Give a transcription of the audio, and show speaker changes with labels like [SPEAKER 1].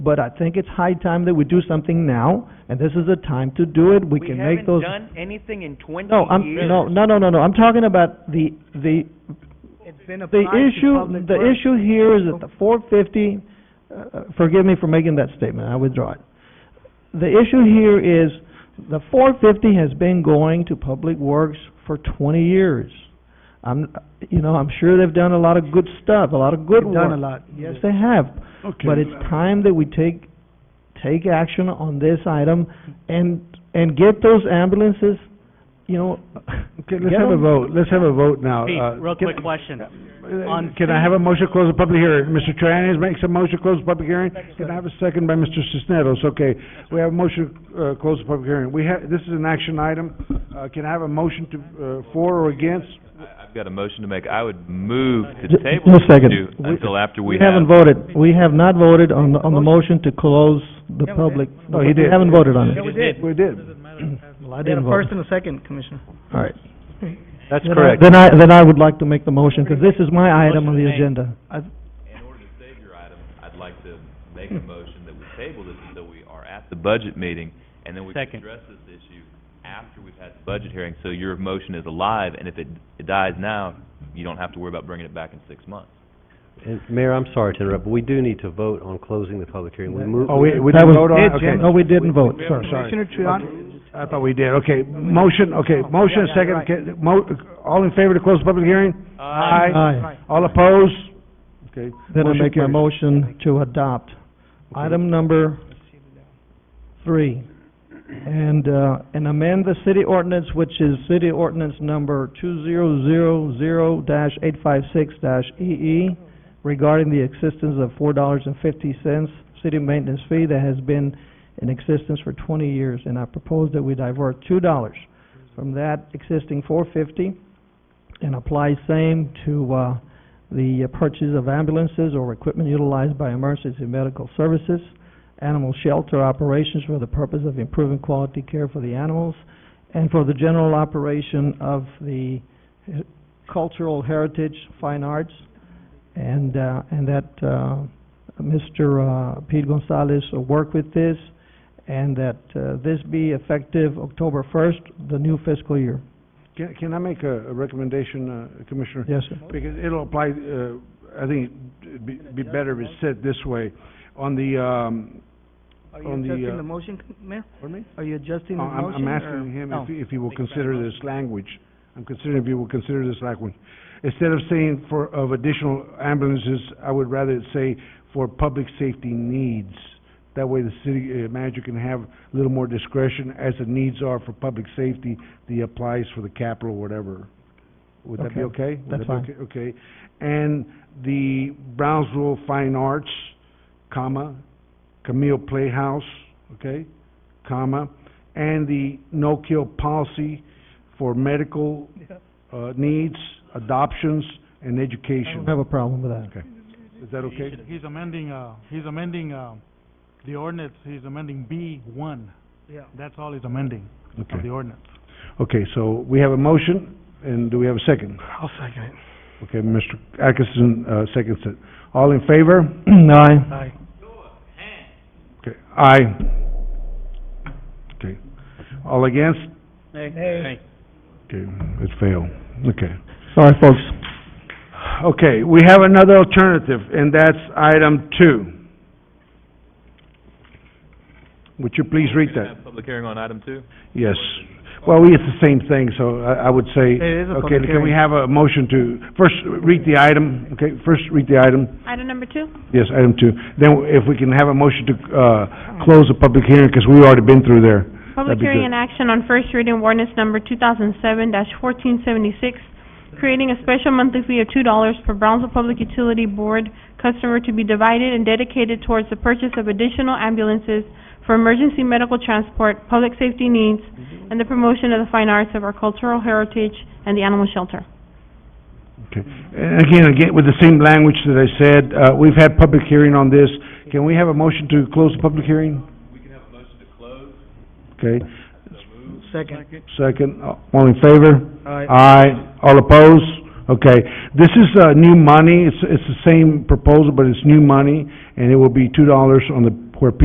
[SPEAKER 1] but I think it's high time that we do something now, and this is the time to do it, we can make those...
[SPEAKER 2] We haven't done anything in twenty years.
[SPEAKER 1] No, I'm, no, no, no, no, no, I'm talking about the, the,
[SPEAKER 3] It's been
[SPEAKER 1] the
[SPEAKER 3] applied to
[SPEAKER 1] issue,
[SPEAKER 3] public
[SPEAKER 1] the
[SPEAKER 3] works.
[SPEAKER 1] issue here is that the four fifty, uh, forgive me for making that statement, I withdraw it. The issue here is, the four fifty has been going to Public Works for twenty years. I'm, you know, I'm sure they've done a lot of good stuff, a lot of good
[SPEAKER 3] We've done a
[SPEAKER 1] work.
[SPEAKER 3] lot.
[SPEAKER 1] Yes, they have, but it's time that we take, take action on this item and, and get those ambulances, you know.
[SPEAKER 4] Okay, let's
[SPEAKER 1] get
[SPEAKER 4] have a
[SPEAKER 1] them-
[SPEAKER 4] vote, let's have a vote now.
[SPEAKER 5] Pete,
[SPEAKER 4] Uh,
[SPEAKER 5] real
[SPEAKER 4] can-
[SPEAKER 5] quick question. on-
[SPEAKER 4] uh, Can I have a motion to close the public hearing? Mr. Trianis makes a motion to close the public hearing. Can I have a second by Mr. Cisneros? Okay, we have a motion to uh, close the public hearing. We have, this is an action item. Uh, Can I have a motion to, uh, for or against?
[SPEAKER 6] I- I've got a motion to make. I would move
[SPEAKER 1] Ju-
[SPEAKER 6] to table
[SPEAKER 1] just a second.
[SPEAKER 6] issue
[SPEAKER 1] We-
[SPEAKER 6] until after we
[SPEAKER 1] We
[SPEAKER 6] have...
[SPEAKER 1] haven't voted, we have not voted on, the- on the motion to close the
[SPEAKER 3] Yeah, we did.
[SPEAKER 1] public.
[SPEAKER 4] No, he
[SPEAKER 1] We
[SPEAKER 4] did.
[SPEAKER 1] Oh, haven't voted on
[SPEAKER 3] Yeah,
[SPEAKER 1] it.
[SPEAKER 3] we did.
[SPEAKER 4] We did.
[SPEAKER 1] Well, I
[SPEAKER 3] We had a
[SPEAKER 1] didn't vote.
[SPEAKER 3] first and a second, Commissioner.
[SPEAKER 1] All right.
[SPEAKER 5] That's
[SPEAKER 1] Then I- Then I, then I would like to make the motion, because this is my item on the
[SPEAKER 5] Motion made.
[SPEAKER 1] agenda. I-
[SPEAKER 6] In order to save your item, I'd like to make a motion that we table this until we are at the budget meeting, and then we can
[SPEAKER 5] Second.
[SPEAKER 6] address this issue after we've had the budget hearing, so your motion is alive, and if it it dies now, you don't have to worry about bringing it back in six months.
[SPEAKER 7] And Mayor, I'm sorry to interrupt, but we do need to vote on closing the public hearing. We move,
[SPEAKER 4] Oh, we, we
[SPEAKER 1] that
[SPEAKER 4] didn't
[SPEAKER 1] was-
[SPEAKER 4] vote on it? Okay.
[SPEAKER 1] No, we didn't vote,
[SPEAKER 4] Sorry,
[SPEAKER 1] sorry.
[SPEAKER 4] sorry.
[SPEAKER 3] Commissioner Trian,
[SPEAKER 4] I thought we did. Okay, motion, okay, motion,
[SPEAKER 3] yeah,
[SPEAKER 4] second,
[SPEAKER 3] right.
[SPEAKER 4] okay, mo- all in favor to close the public hearing?
[SPEAKER 3] Um,
[SPEAKER 1] Aye.
[SPEAKER 4] All opposed? Okay.
[SPEAKER 1] Then I
[SPEAKER 4] motion
[SPEAKER 1] make my
[SPEAKER 4] carries.
[SPEAKER 1] motion to adopt
[SPEAKER 4] Okay.
[SPEAKER 1] item number three. And, uh, and amend the city ordinance, which is city ordinance number two zero zero zero dash eight five six dash EE regarding the existence of four dollars and fifty cents city maintenance fee that has been in existence for twenty years. And I propose that we divert two dollars from that existing four fifty and apply same to, uh, the uh, purchase of ambulances or equipment utilized by emergency medical services, animal shelter operations for the purpose of improving quality care for the animals, and for the general operation of the uh, cultural heritage, fine arts, and, uh, and that, uh, Mr. uh, Pete Gonzalez will work with this, and that, uh, this be effective October first, the new fiscal year.
[SPEAKER 4] Can, can I make a, a recommendation, uh, Commissioner?
[SPEAKER 1] Yes, sir.
[SPEAKER 4] Because it'll apply, uh, I think it'd be, be better if it's said this way, on the, um,
[SPEAKER 3] are
[SPEAKER 4] On
[SPEAKER 3] you
[SPEAKER 4] the, uh,
[SPEAKER 3] adjusting the motion, Com- Mayor?
[SPEAKER 4] pardon me?
[SPEAKER 3] Are you adjusting
[SPEAKER 4] Oh,
[SPEAKER 3] the
[SPEAKER 4] I'm,
[SPEAKER 3] motion?
[SPEAKER 4] I'm
[SPEAKER 3] or-
[SPEAKER 4] asking him
[SPEAKER 3] Oh.
[SPEAKER 4] if, he- if he will consider this language. I'm considering if he will consider this language. Instead of saying for, of additional ambulances, I would rather it say for public safety needs. That way the city uh, manager can have a little more discretion as the needs are for public safety, the applies for the capital, whatever. Would that be okay? Would
[SPEAKER 1] that's
[SPEAKER 4] that be okay? Okay. And the Brownsville Fine Arts, comma, Camille Playhouse, okay, comma, and the no-kill policy for medical, uh, needs, adoptions, and
[SPEAKER 1] I don't
[SPEAKER 4] education.
[SPEAKER 1] have a problem with that.
[SPEAKER 4] Is that okay?
[SPEAKER 8] He's amending, uh, he's amending, uh, the ordinance, he's amending B one.
[SPEAKER 3] Yeah.
[SPEAKER 8] That's all he's amending of
[SPEAKER 4] Okay.
[SPEAKER 8] the ordinance.
[SPEAKER 4] Okay, so we have a motion, and do we have a second?
[SPEAKER 3] I'll second it.
[SPEAKER 4] Okay, Mr. Atkinson, uh, seconds it. All in favor?
[SPEAKER 1] Aye.
[SPEAKER 3] Aye.
[SPEAKER 4] Okay, aye. Okay. All against?
[SPEAKER 3] Hey.
[SPEAKER 4] Okay, it failed. Okay.
[SPEAKER 1] Sorry, folks.
[SPEAKER 4] Okay, we have another alternative, and that's item two. Would you please read
[SPEAKER 6] We're gonna
[SPEAKER 4] that?
[SPEAKER 6] have public hearing on item two?
[SPEAKER 4] Yes. Well, we, it's the same thing, so I, I would say...
[SPEAKER 3] It is a public
[SPEAKER 4] Okay, can we
[SPEAKER 3] hearing.
[SPEAKER 4] have a motion to, first, read the item, okay? First, read the item,
[SPEAKER 9] Item number two?
[SPEAKER 4] yes, item two. Then if we can have a motion to, uh, close the public hearing, because we've already been through there. That'd
[SPEAKER 9] Public
[SPEAKER 4] be
[SPEAKER 9] hearing
[SPEAKER 4] good.
[SPEAKER 9] and action on first reading of ordinance number two thousand seven fourteen seventy-six, creating a special monthly fee of two dollars for Brownsville Public Utility Board customer to be divided and dedicated towards the purchase of additional ambulances for emergency medical transport, public safety needs, and the promotion of the fine arts of our cultural heritage and the animal shelter.
[SPEAKER 4] Okay. And again, again, with the same language that I said, uh, we've had public hearing on this. Can we have a motion to close the public hearing?
[SPEAKER 6] We can have a motion to close.
[SPEAKER 4] Okay,
[SPEAKER 3] Second.
[SPEAKER 4] second, uh, all in favor?
[SPEAKER 3] Aye.
[SPEAKER 4] Aye. All opposed? Okay. This is, uh, new money. It's, it's the same proposal, but it's new money, and it will be two dollars on the